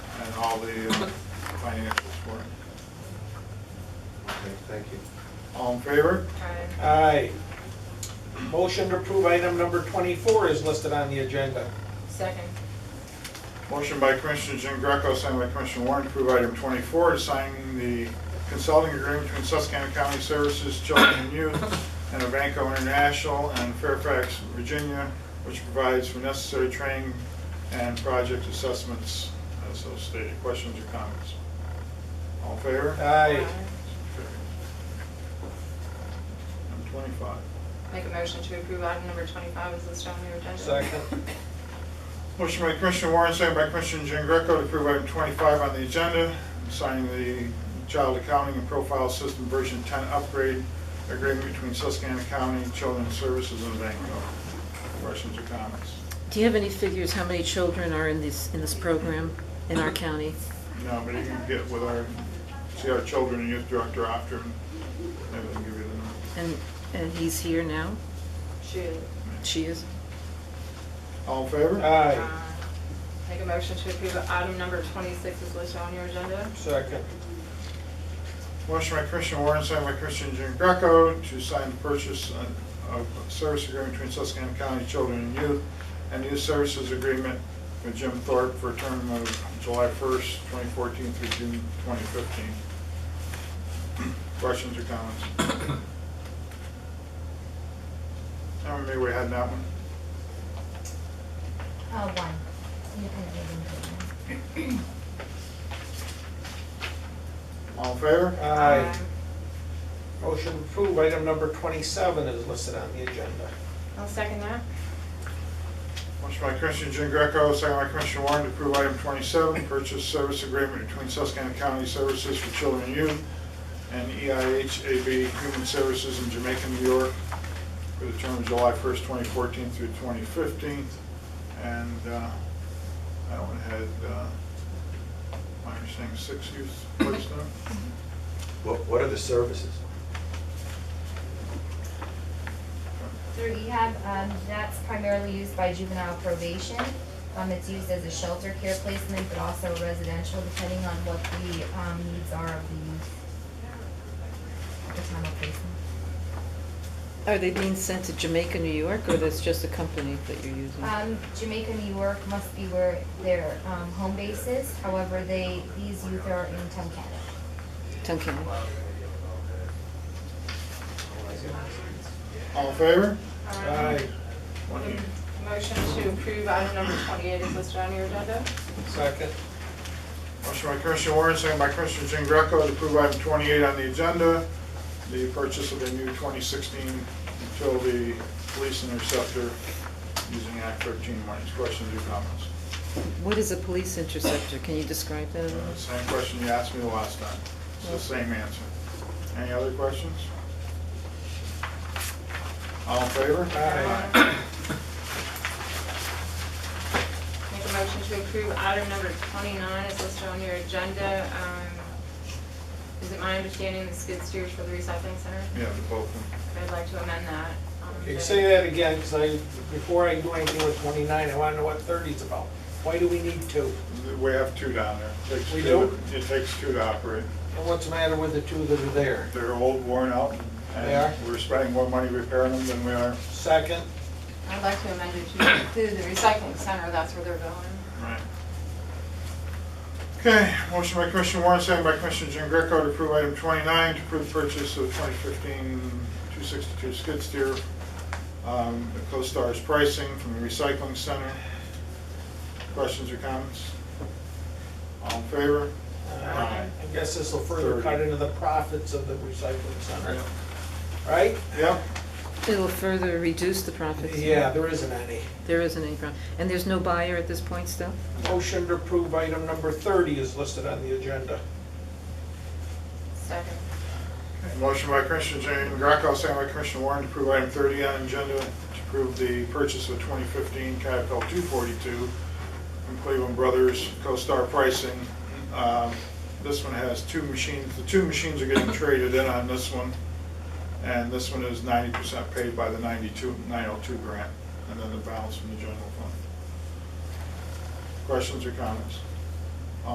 all the uh, financials for it. Okay, thank you. All in favor? Aye. Aye. Motion to approve item number 24 is listed on the agenda. Second. Motion by Commissioner Jean Greco, signed by Commissioner Warren, to approve item 24, to sign the consulting agreement between Susquehanna County Services, Children and Youth, and Avanco International and Fairfax, Virginia, which provides for necessary training and project assessments as so stated. Questions or comments? All in favor? Aye. Item 25. Make a motion to approve item number twenty-five is listed on your agenda. Second. Motion by Commissioner Warren, second by Commissioner Jean Greco to approve item 25 on the agenda, signing the Child Accounting and Profile System Version 10 Upgrade Agreement between Susquehanna County Children's Services and Vanco. Questions or comments? Do you have any figures, how many children are in this, in this program in our county? No, but you can get with our, see our Children and Youth Director after, and maybe they'll give you the number. And, and he's here now? Shoot. She is? All in favor? Aye. Make a motion to approve item number twenty-six is listed on your agenda. Second. Motion by Commissioner Warren, second by Commissioner Jean Greco to sign the purchase of a service agreement between Susquehanna County Children and Youth and Youth Services Agreement with Jim Thorpe for a term of July 1st, 2014 through June 2015. Questions or comments? How many we had in that one? Uh, one. Independent living program. All in favor? Aye. Motion to approve item number 27 is listed on the agenda. I'll second that. Motion by Commissioner Jean Greco, second by Commissioner Warren to approve item 27, purchase service agreement between Susquehanna County Services for Children and Youth and E EIHAB Human Services in Jamaica, New York, for the term of July 1st, 2014 through 2015. And uh, that one had, uh, my understanding, six youth placed on it. What, what are the services? Through rehab, um, that's primarily used by juvenile probation. Um, it's used as a shelter care placement, but also residential, depending on what the, um, needs are of the youth. at The time of placement. Are they being sent to Jamaica, New York, or that's just a company that you're using? Um, Jamaica, New York must be where their, um, home base is, however, they, these youth are in Tunkhannock. Duncan? All in favor? Aye. One unit. Motion to approve item number twenty-eight is listed on your agenda. Second. Motion by Commissioner Warren, second by Commissioner Jean Greco to approve item 28 on the agenda, the purchase of a new 2016 utility police interceptor using Act 13 monies. Questions or comments? What is a police interceptor? Can you describe that? a little? Uh, Same question you asked me the last time. It's the same answer. Any other questions? All in favor? Aye. Make a motion to approve item number twenty-nine is listed on your agenda. Um, Is it my understanding the skid steers for the recycling center? Yeah, the both of them. I'd like to amend that. um, Okay, say that again, because I, before I do anything with 29, I want to know what 30 is about. Why do we need two? We have two down there. Takes We two- It takes two to operate. And what's the matter with the two that are there? They're old, worn out, They are? and we're spending more money repairing them than we are Second. I'd like to amend it to include the recycling center, that's where they're going. Right. Okay, motion by Commissioner Warren, second by Commissioner Jean Greco to approve item 29, to approve purchase of 2015-262 skid steer, um, at CoStar's pricing from the recycling center. Questions or comments? All in favor? I guess this will further cut into the profits of the recycling center, Yep. right? Yep, It'll further reduce the profits. Yeah, there isn't any. There isn't any problem. And there's no buyer at this point still? Motion to approve item number 30 is listed on the agenda. Second. motion by Commissioner Jean Greco, second by Commissioner Warren to approve item 30 on agenda, to approve the purchase of 2015 Caterpillar 242 from Cleveland Brothers, CoStar pricing. Um, This one has two machines, the two machines are getting traded in on this one, and this one is ninety percent paid by the oh 92, 902 grant, and then the balance from the general fund. Questions or comments?